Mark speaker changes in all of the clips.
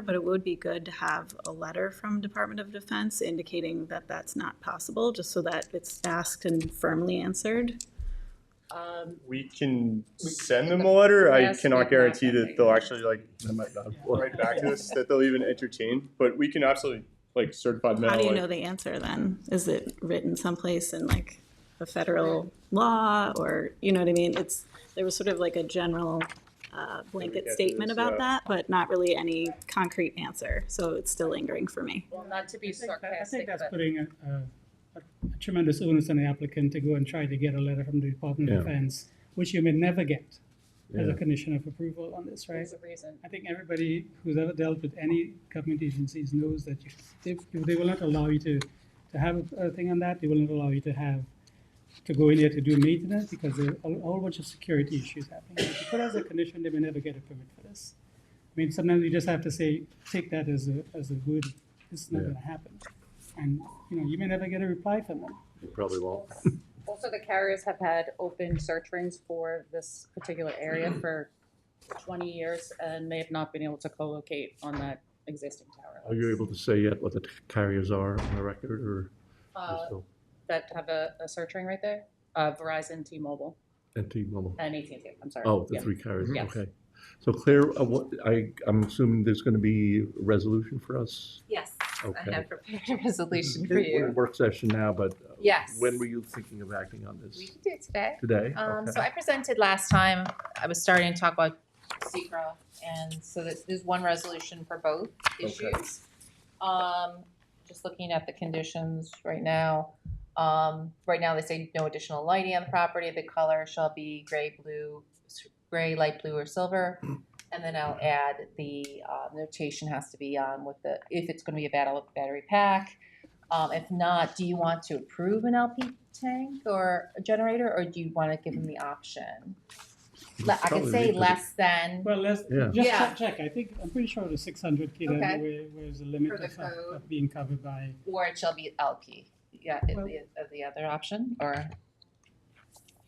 Speaker 1: But it would be good to have a letter from Department of Defense indicating that that's not possible, just so that it's asked and firmly answered.
Speaker 2: We can send them a letter. I
Speaker 3: Yes, we
Speaker 2: cannot
Speaker 3: have
Speaker 2: guarantee
Speaker 3: that, I
Speaker 2: that they'll actually like, I might not write back to us, that they'll even entertain, but we can absolutely like certified
Speaker 1: How do you
Speaker 2: mail,
Speaker 1: know
Speaker 2: like,
Speaker 1: the answer then? Is it written someplace in like a federal law or, you know what I mean? It's, there was sort of like a general uh, blanket
Speaker 2: guess it
Speaker 1: statement
Speaker 2: is, uh,
Speaker 1: about
Speaker 2: yeah.
Speaker 1: that, but not really any concrete answer, so it's still lingering for me.
Speaker 3: Well, not to be
Speaker 4: I think that- I think
Speaker 3: sarcastic,
Speaker 4: that's
Speaker 3: but
Speaker 4: putting a, a a tremendous onus on the applicant to go and try to get a letter from the Department of
Speaker 5: Yeah.
Speaker 4: Defense, which you may never get as
Speaker 5: Yeah.
Speaker 4: a condition of approval on this, right?
Speaker 3: there's a reason.
Speaker 4: I think everybody who's ever dealt with any government agencies knows that you, they, they will not allow you to, to have a thing on that. They will not allow you to have, to go in there to do maintenance because there are a whole bunch of security issues happening. If you put as a condition, they may never get a permit for this. I mean, sometimes you just have to say, take that as a, as a good, this is not
Speaker 5: Yeah.
Speaker 4: gonna happen. And, you know, you may never get a reply from them.
Speaker 5: You probably won't.
Speaker 3: Also, the carriers have had open search rings for this particular area for twenty years, and they have not been able to co-locate on that existing tower.
Speaker 5: Are you able to say yet what the carriers are on the record or
Speaker 3: Uh,
Speaker 5: still
Speaker 3: That have a, a search ring right there, uh, Verizon, T-Mobile,
Speaker 5: anti-mobile?
Speaker 3: and AT&T, I'm sorry.
Speaker 5: Oh, the
Speaker 3: Yeah.
Speaker 5: three carriers,
Speaker 3: uh, Yes.
Speaker 5: okay. So Claire, uh, what, I, I'm assuming there's going to be a resolution for us?
Speaker 3: Yes, I
Speaker 5: Okay.
Speaker 3: have prepared a resolution for
Speaker 5: We're in
Speaker 3: you.
Speaker 5: Work session now, but. uh,
Speaker 3: Yes.
Speaker 5: When were you thinking of acting on this?
Speaker 3: We can do it today.
Speaker 5: Today?
Speaker 3: Um,
Speaker 5: Okay.
Speaker 3: so I presented last time, I was starting to talk about secra and so this, there's one resolution for both
Speaker 5: Okay.
Speaker 3: issues. Um, just looking at the conditions right now, um, right now they say no additional lighting on the property, the color shall be gray, blue, s- gray, light blue or silver. And then I'll add the, uh, notation has to be on with the, if it's gonna be a battle battery pack. Um, if not, do you want to approve an LP tank or a generator, or do you wanna give them the option? Le- I could
Speaker 5: Probably
Speaker 3: say
Speaker 5: because-
Speaker 3: less than
Speaker 4: Well, let's,
Speaker 5: Yeah.
Speaker 4: just
Speaker 3: Yeah.
Speaker 4: check, check. I think, I'm pretty sure the six hundred K,
Speaker 3: Okay.
Speaker 4: where, where's the limit
Speaker 3: For the
Speaker 4: of, of-
Speaker 3: code.
Speaker 4: of being covered by.
Speaker 3: or it shall be LP. Yeah, is
Speaker 4: Well-
Speaker 3: the, is the other option, or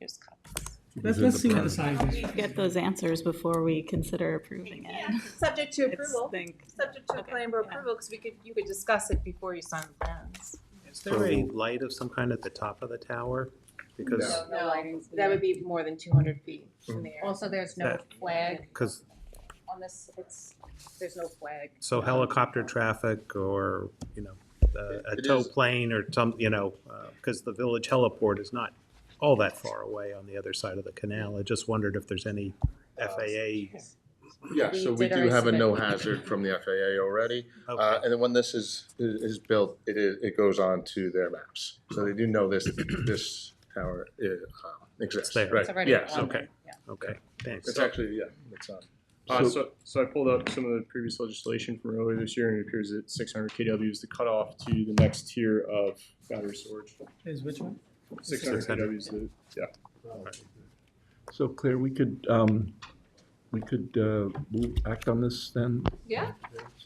Speaker 3: here's copies.
Speaker 4: Let's,
Speaker 5: Because
Speaker 4: let's
Speaker 5: of
Speaker 4: see what the
Speaker 5: parameters.
Speaker 4: size is.
Speaker 1: Get those answers before we consider approving it.
Speaker 3: Subject to
Speaker 1: It's think-
Speaker 3: subject to a plan or approval, because we could, you could discuss it before you sign the plans.
Speaker 6: Is there a light of some kind at the top of the tower? Because,
Speaker 3: No, no lighting's
Speaker 7: That would be more than two hundred feet in the air.
Speaker 3: Also, there's no
Speaker 6: That-
Speaker 3: flag
Speaker 6: because,
Speaker 3: on this, it's, there's no flag.
Speaker 6: so helicopter traffic or, you know, uh, a
Speaker 8: It
Speaker 6: tow
Speaker 8: is-
Speaker 6: plane or some, you know, because the village heliport is not all that far away on the other side of the canal. I just wondered if there's any
Speaker 8: Uh,
Speaker 6: FAA.
Speaker 8: Yeah,
Speaker 3: We
Speaker 8: so we
Speaker 3: did
Speaker 8: do
Speaker 3: already
Speaker 8: have a
Speaker 3: submit.
Speaker 8: no hazard from the FAA already. Uh, and then when this is, is is built, it is, it goes on to their maps. So they do know this, this tower uh, exists,
Speaker 6: there.
Speaker 8: right?
Speaker 3: It's already
Speaker 8: Yes,
Speaker 3: on
Speaker 8: okay.
Speaker 3: there, yeah.
Speaker 6: Okay, thanks.
Speaker 8: It's actually, yeah, it's on.
Speaker 2: Uh, so, so I pulled up some of the previous legislation from earlier this year, and it appears that six hundred KW is the cutoff to the next tier of battery storage.
Speaker 4: Is which one?
Speaker 2: Six hundred
Speaker 6: 600.
Speaker 2: KW is the, yeah.
Speaker 5: So Claire, we could, um, we could, uh, move- act on this then?
Speaker 3: Yeah.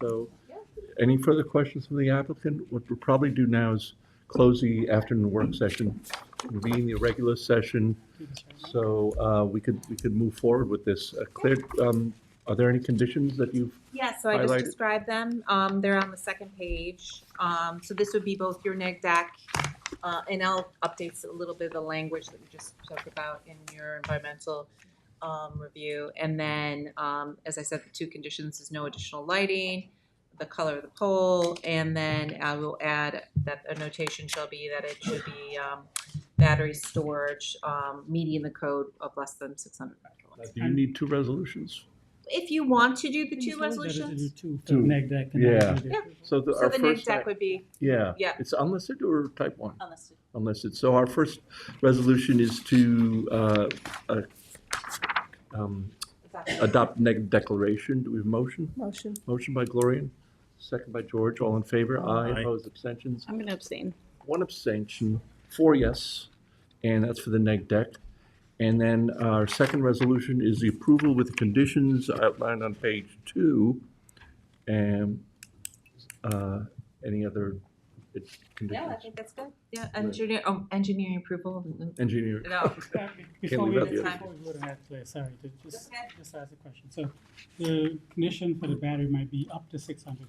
Speaker 5: So,
Speaker 3: Yeah.
Speaker 5: any further questions from the applicant? What we'll probably do now is close the afternoon work session, convene the regular session, so, uh, we could, we could move forward with this. Uh, Claire, um, are there any conditions that you've,
Speaker 7: Yeah, so I just
Speaker 5: Highlighted.
Speaker 7: described them. Um, they're on the second page. Um, so this would be both your E neg deck, uh, and I'll update a little bit of the language that we just talked about in your environmental, um, review. And then, um, as I said, the two conditions is no additional lighting, the color of the pole, and then I will add that a notation shall be that it should be, um, battery storage, um, meeting the code of less than six hundred kilowatts.
Speaker 5: do you need two resolutions?
Speaker 7: If you want to do the two
Speaker 4: Better
Speaker 7: resolutions.
Speaker 4: to do Two for
Speaker 5: Two.
Speaker 4: neg deck. and
Speaker 5: Yeah.
Speaker 4: then do the-
Speaker 7: Yeah.
Speaker 5: So the,
Speaker 7: So
Speaker 5: our
Speaker 7: the neg
Speaker 5: first,
Speaker 7: deck would be
Speaker 5: yeah.
Speaker 7: Yeah.
Speaker 5: It's unlisted or type one?
Speaker 7: unlisted.
Speaker 5: unlisted. So our first resolution is to uh, uh, um, adopt neg declaration. Do we have a motion?
Speaker 7: Motion.
Speaker 5: Motion by Gloria, second by George. All in favor? Aye.
Speaker 6: Aye.
Speaker 5: Opposed? Abstentions?
Speaker 1: I'm gonna abstain.
Speaker 5: One abstention, four yes, and that's for the neg deck. And then our second resolution is the approval with the conditions outlined on page two. And uh, any other it
Speaker 3: No, I
Speaker 5: conditions.
Speaker 3: think that's good. Yeah, engineer, oh, engineering approval.
Speaker 5: Engineer,
Speaker 3: No.
Speaker 4: Before
Speaker 5: leave
Speaker 4: we,
Speaker 5: out the
Speaker 4: before
Speaker 5: other
Speaker 4: we go to that place, sorry, to just,
Speaker 3: Okay.
Speaker 4: just ask a question. So the condition for the battery might be up to six hundred